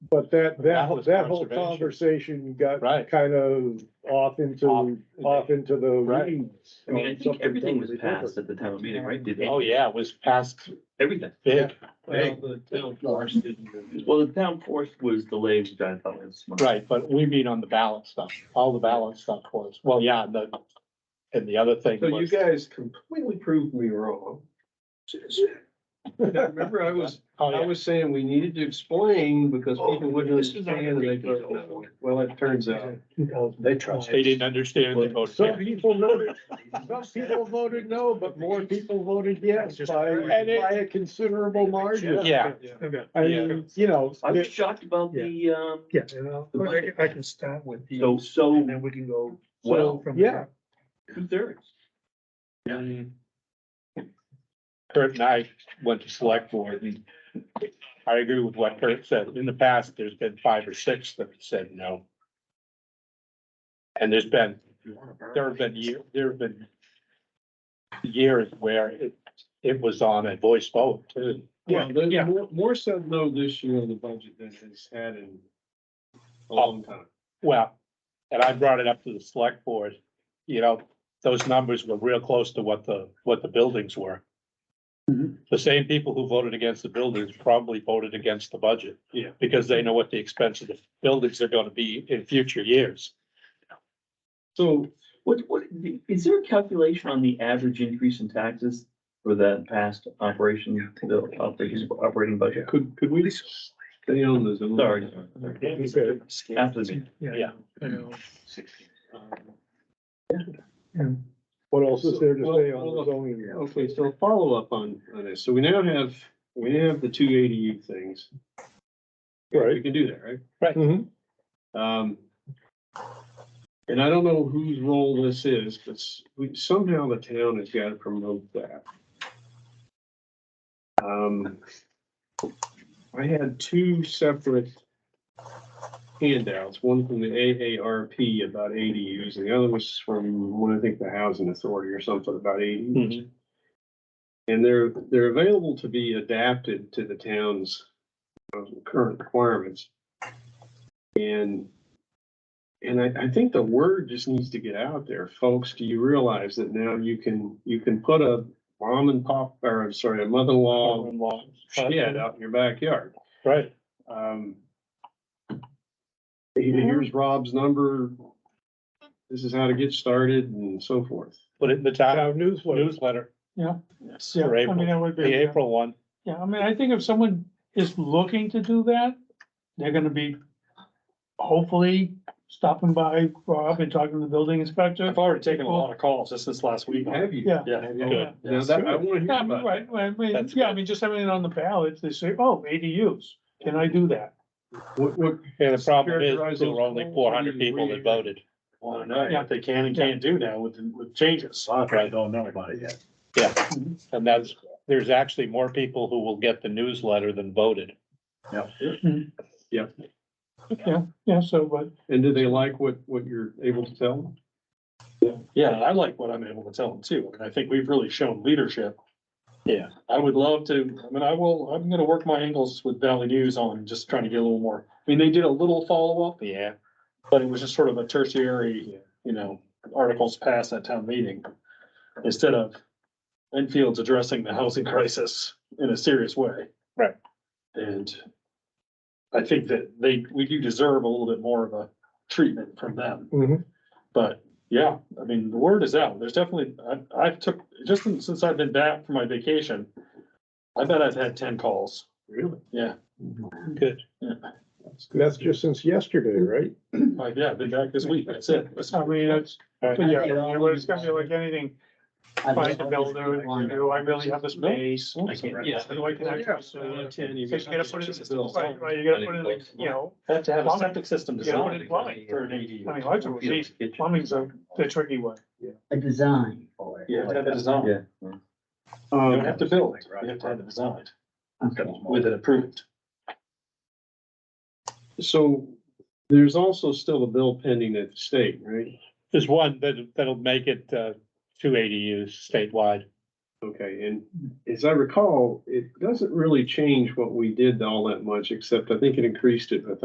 But that, that, That whole- was that whole conservation. conversation got Right. kind of off Off- into, off into the Right. weeds. I mean, I on think something everything was totally different. passed at the town meeting, right? Did Oh, yeah, it was passed Everything. big, Well, the town forest didn't. Well, the town force was delayed, which I thought was smart. right, but we mean on the ballot stuff, all the ballot stuff was, well, yeah, and the, and the other thing So you was. guys completely proved me wrong. Now, Remember, I was, Oh, I yeah, was saying we needed to explain because people wouldn't Oh, This is not understand and they gonna don't know. Well, it turns out. They trust. they didn't understand, they voted. Some yeah. people voted, some people voted no, but more people voted yes by, And it- by a considerable margin. Yeah, I mean, you know, I was it- shocked about the, um, Yeah, you know, The budget. I can start with these, so, so and then we can go. well, from yeah, two thirds. Kurt and I went to select board and I agree with what Kurt said. In the past, there's been five or six that have said no. And there's been, there have been year, there have been years where it, it was on a voice vote too. Well, there's Yeah. more, more said no this year in the budget than it's had in a long time. Well, and I brought it up to the select board, you know, those numbers were real close to what the, what the buildings were. Mm-hmm. The same people who voted against the buildings probably voted against the budget. Yeah. Because they know what the expense of the buildings are gonna be in future years. So What, what, is there a calculation on the average increase in taxes for that past operation, the operating, operating budget? could, could we stay on this? a little Sorry. bit? After the meeting. Yeah. you know, what else is there to Well, say well, on look, the zoning? Okay, so follow up on, on this. So we now have, we now have the two ADU things. We Right. can do that, right? Mhm. Um, and I don't know whose role this is, but s- we, somehow the town has got to promote that. Um, I had two separate handouts, one from the AARP about ADUs, and the other was from, what I think, the Housing Authority or something about ADUs. And they're, they're available to be adapted to the town's uh, current requirements. And, and I, I think the word just needs to get out there, folks. Do you realize that now you can, you can put a mom and pop, or I'm sorry, a mother-in-law shed out in your backyard? Right, Um. Mm-hmm. Here's Rob's number. This is how to get started and so forth. put it in the town Town newsletter. newsletter, Yeah, For I mean, that would the be, April one. yeah, I mean, I think if someone is looking to do that, they're gonna be hopefully stopping by Rob and talking to the building inspector. I've already taken a lot of calls just this last week. Have you? Yeah. Yeah. Good. Now that, I wanna hear Yeah, I mean, about it. right, I mean, That's yeah, I good. mean, just having it on the ballot, they say, oh, ADUs, can I do that? What, what, And the problem Characterize is, there those were only calls, four hundred we- people we- that voted. Well, I know what they can and can't do now with, with changes. I probably don't know about it yet. Yeah, and that's, there's actually more people who will get the newsletter than voted. Yeah, so, but, and do they like what, what you're able to tell them? Yeah, and I like what I'm able to tell them too. And I think we've really shown leadership. Yeah. I would love to, I mean, I will, I'm gonna work my angles with Valley News on just trying to get a little more. I mean, they did a little follow-up, Yeah, but it was just sort of a tertiary, you know, articles passed at town meeting. Instead of Enfield's addressing the housing crisis in a serious way. Right. And I think that they, we do deserve a little bit more of a treatment from them. Mhm. But yeah, I mean, the word is out. There's definitely, I, I've took, just since since I've been back from my vacation, I bet I've had ten calls. Really? Yeah, That's just since yesterday, right? like, yeah, I've been back this week. That's it. That's- I mean, that's, but yeah, but it's gonna be like anything, find a builder, you know, I really have the space. I can't, yeah. So I can actually, so you gotta put it, right, right, you gotta put it, like, you know, Have to have a Plumbing. septic system You gotta put designed in plumbing. for an ADU. I mean, lots of these, plumbing's a, the tricky one. a design for it. You have to have it designed. Yeah. You Um, don't have to build, you have to have it designed Okay. with it approved. So there's also still a bill pending at the state, right? there's one that, that'll make it, uh, two ADUs statewide. Okay, and as I recall, it doesn't really change what we did all that much, except I think it increased it, I